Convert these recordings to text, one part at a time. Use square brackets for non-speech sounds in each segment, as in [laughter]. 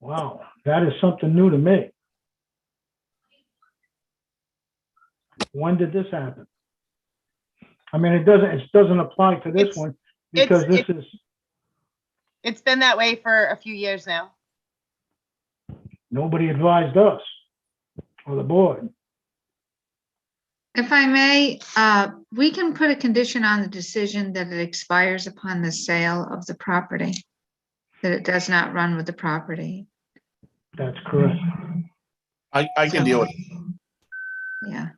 Wow, that is something new to me. When did this happen? I mean, it doesn't, it doesn't apply to this It's- one it's- because this is, It's been that way for a few years now. nobody advised us or the board. If I may, uh, we can put a condition on the decision that it expires upon the sale of the property, that it does not run with the property. That's correct. I, I can deal with it. Yeah,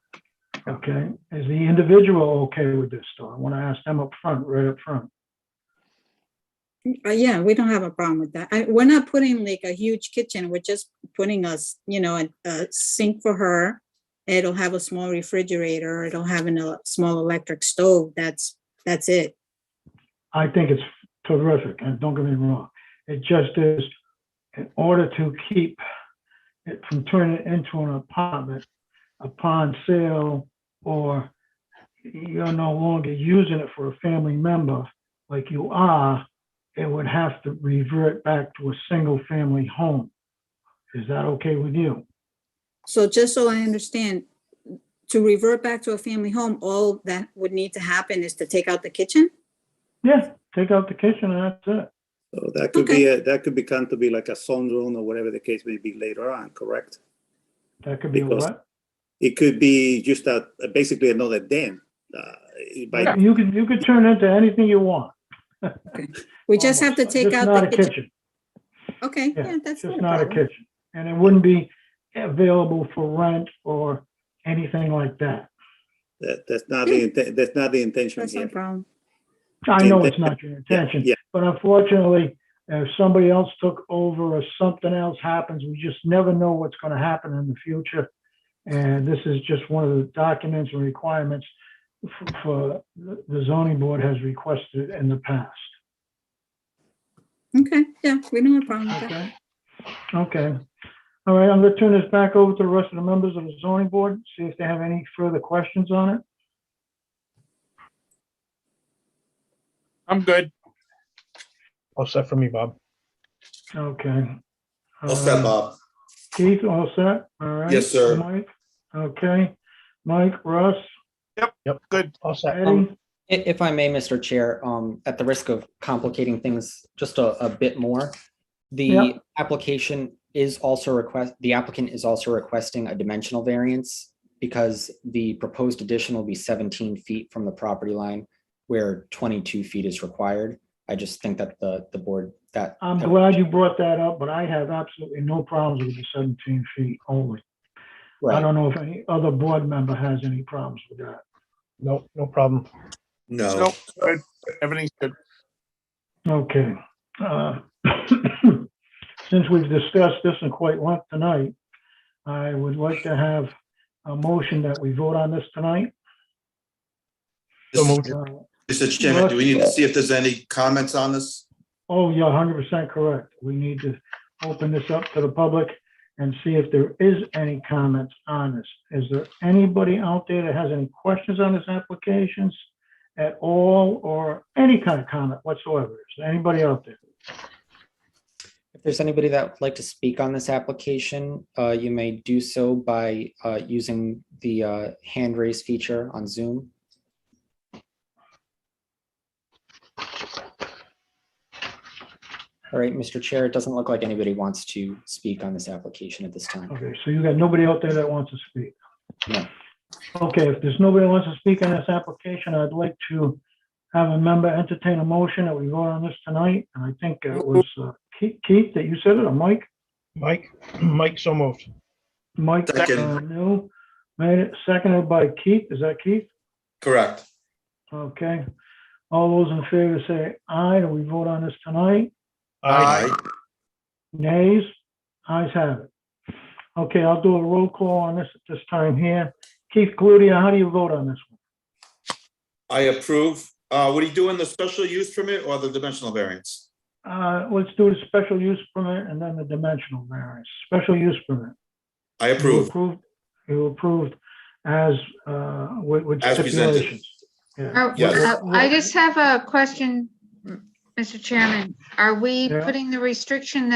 Okay. Is the individual okay with this though? I want to ask them up front, right up front. Uh, yeah, we don't have a problem with that. I, we're not putting like a huge kitchen. We're just putting us, you know, a, a sink for her. It'll have a small refrigerator. It'll have an, a small electric stove. That's, that's it. I think it's terrific, and don't get me wrong. It just is, in order to keep it from turning into an apartment upon sale, or you're no longer using it for a family member like you are, it would have to revert back to a single-family home. Is that okay with you? So just so I understand, to revert back to a family home, all that would need to happen is to take out the kitchen? Yeah, take out the kitchen and that's it. So that could be, a- that could become to be like a sunroom or whatever the case may be later on, correct? That could be a Because- what? It could be just a, basically another den. uh, by- You could, you could turn it into anything you want. We just have to almost. take Just out not the a kitchen. kitchen. Okay, Yeah, yeah, It's that's just not a not a problem. kitchen, and it wouldn't be available for rent or anything like that. That, that's not the, inten- that's not the intention That's not a here. problem. I know it's not your intention, Yeah, but unfortunately, if somebody else took over or something else happens, we just never know what's gonna happen in the future. And this is just one of the documents and requirements f- for, the zoning board has requested in the past, Okay, yeah, we don't have a problem with that. okay? Okay, all right, I'm gonna turn this back over to the rest of the members of the zoning board, see if they have any further questions on it. I'm good. All set for me, Bob. Okay. I'll step Uh, up. Keith, all set? All right. Yes, sir. Mike, okay. Mike, Russ, Good. All set. Um, Eddie, I- If I may, Mr. Chair, um, at the risk of complicating things just a, a bit more, Yep. the application is also request, the applicant is also requesting a dimensional variance because the proposed addition will be seventeen feet from the property line where twenty-two feet is required. I just think that the, the board, that. I'm glad you brought that up, but I have absolutely no problems with the 17 feet only. I Right, don't know if any other board member has any problems with that. No, no problem. No. Nope, good. Everything's good. Okay. uh, [coughs] Since we've discussed this in quite length tonight, I would like to have a motion that we vote on this tonight. So moved. Uh, Mr. Chairman, do we need to see if there's any comments on this? Oh, you're hundred percent correct. We need to open this up to the public and see if there is any comments on this. Is there anybody out there that has any questions on this applications at all or any kind of comment whatsoever? Is there anybody out there? if there's anybody that would like to speak on this application, uh, you may do so by, uh, using the, uh, hand raise feature on Zoom. All right, Mr. Chair, it doesn't look like anybody wants to speak on this application at this time. Okay, so you got nobody out there that wants to speak? No. Okay, if there's nobody wants to speak on this application, I'd like to have a member entertain a motion that we vote on this tonight. And I think it was uh, Keith, Keith, that you said it, or Mike? Mike, [clears throat] Mike, so moved. Mike, Second. uh, no, made it, seconded by Keith, is that Keith? Correct. Okay. All those in favor say aye, do we vote on this tonight? Uh, Nays? Ayes have it. Okay, I'll do a roll call on this at this time here. Keith Cludia, how do you vote on this one? I approve. Uh, what are you doing, the special use permit or the dimensional variance? Uh, let's do the special use permit and then the dimensional variance. Special use permit. I You approve. Approved, you approved as, uh, with with As presented. stipulations. Yeah. Oh, Yes. uh, I just have a question, Mr. Chairman. Are we Yeah. putting the restriction that